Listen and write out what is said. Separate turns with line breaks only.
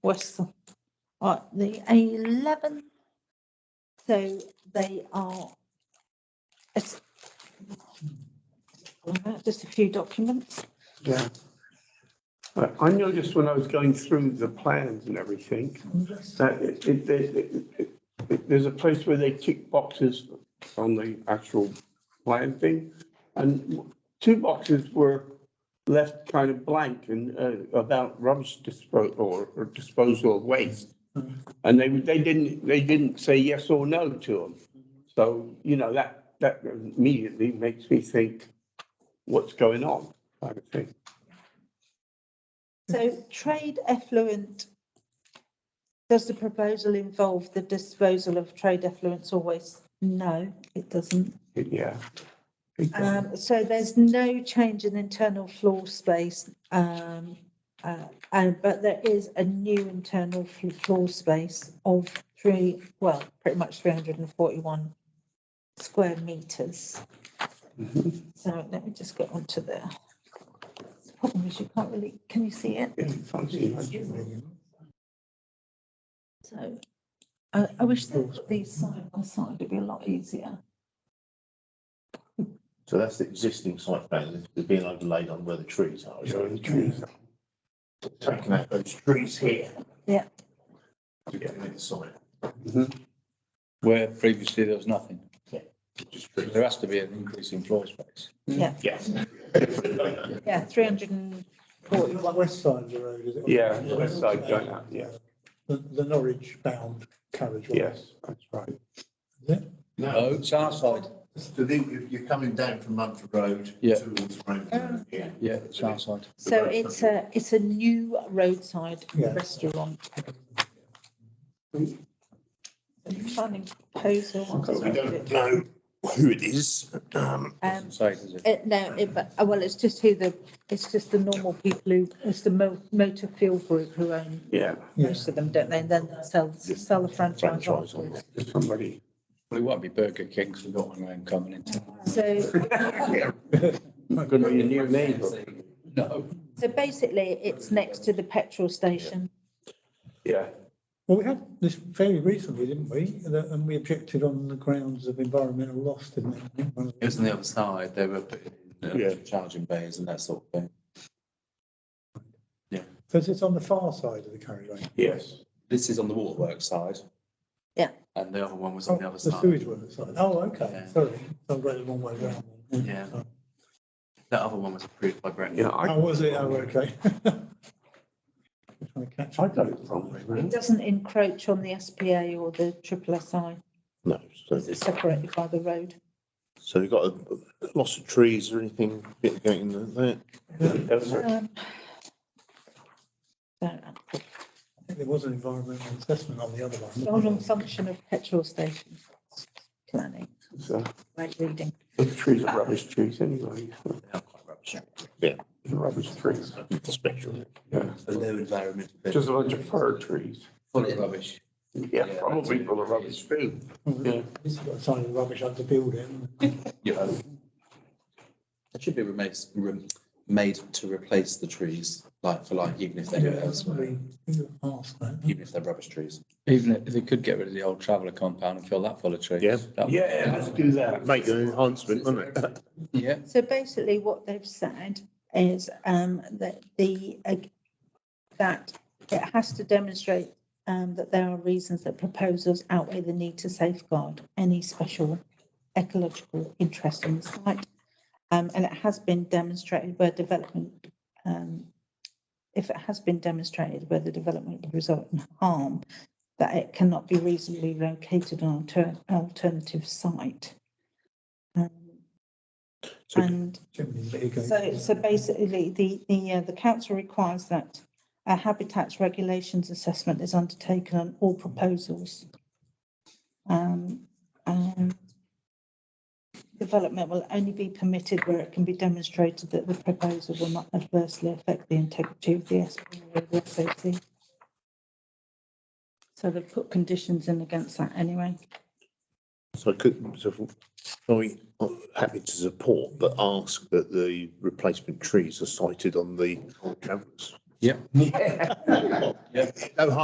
West, uh, the eleventh. So they are. It's. Just a few documents.
Yeah. But I noticed when I was going through the plans and everything, that it, it, it- it- it- it- there's a place where they tick boxes on the actual plan thing. And two boxes were left kind of blank and, uh, about rubbish disposal or, or disposal of waste. And they, they didn't, they didn't say yes or no to them. So, you know, that, that immediately makes me think, what's going on? kind of thing.
So trade effluent. Does the proposal involve the disposal of trade effluents or waste? No, it doesn't.
Yeah.
Um, so there's no change in internal floor space, um, uh, and, but there is a new internal fl- floor space of three, well, pretty much three hundred and forty-one square meters.
Mhm.
So let me just get onto there. The Problem is you can't really, can you see it?
Yeah, something like that.
So I, I wish they put these side by side, it'd be a lot easier.
So that's the existing site plan that's being overlaid on where the trees are.
Yeah, the trees.
Taking out those trees here.
Yeah.
To get rid of the site.
Where previously there was nothing.
Just trees.
There has to be an increase in floor space.
Yes.
Yeah, three hundred and
Like
forty-one.
West side of the road, is it?
Yeah, the west side going out, yeah,
The, the Norwich bound carriageway.
yes, that's right.
Is it?
No,
No,
it's our side.
so then you- you're coming down from Munford Road.
Yeah.
Towards Rainbow. Yeah.
Yeah, it's our side.
So it's a, it's a new roadside
Yeah.
restaurant. Planning proposal.
So we don't know who it is. Um,
Um,
Side, is it?
it, no, it, but, uh, well, it's just who the, it's just the normal people who, it's the Mo- motor fuel group who own
Yeah,
Yeah.
most of them, don't they? And then sell, sell the franchise
Franchise.
afterwards.
somebody,
Well, it won't be Burger King because we've got one going coming into.
So
gonna be a new neighbour,
No.
So basically, it's next to the petrol station.
yeah.
Well, we had this very recently, didn't we? That- And we objected on the grounds of environmental loss, didn't we? One of
It was on the other side, they were putting in
Yeah.
uh, charging bays and that sort of thing.
the- So it's on the far side of the Oh, carriageway.
Yes,
This is on the waterworks side.
Yeah.
And the other one was on the
Oh,
other
The
side.
sewage works side. Oh, okay,
Yeah.
sorry. I'm going the wrong way round.
Yeah. That other one was approved by Brett.
yeah, I,
How was it? Oh, okay. Trying to catch
I
up.
got it wrong.
It doesn't encroach on the SPA or the triple SI,
No, so,
because it's separated by the road.
so you've got a loss of trees or anything bit going in there?
That's-
Um, so,
I think There was an environmental assessment on the other one. wasn't
Role
there?
and function of petrol station planning,
so,
right reading.
Those uh, trees are rubbish trees anyway, They're rubbish trees,
Special.
yeah,
The low environmental.
just a bunch of fir trees.
Full of rubbish.
Yeah, probably full of rubbish too, yeah.
This has got a sign of rubbish under building.
Yeah. It should be replaced, rem- made to replace the trees, like for like, even if they go elsewhere,
Ask that.
even if they're rubbish trees.
Even if they could get rid of the old traveller compound and fill that full of trees.
Yeah.
That would-
Yeah, let's do that.
Make an enhancement, wouldn't it?
Yeah,
So basically, what they've said is um, that the, uh, that it has to demonstrate um, that there are reasons that proposals outweigh the need to safeguard any special ecological interest on the site. Um, And it has been demonstrated where development, um, if it has been demonstrated where the development would result in harm, that it cannot be reasonably located on an alternative site. Um,
So-
And
Chimney mitigation.
so, so basically, the, the, uh, the council requires that a habitats regulations assessment is undertaken on all proposals. Um, um, development will only be permitted where it can be demonstrated that the proposal will not adversely affect the integrity of the SPA or the SOC. So they've put conditions in against that anyway.
So could, so are we happy to support, but ask that the replacement trees are sited on the travellers?
Yeah.
No harm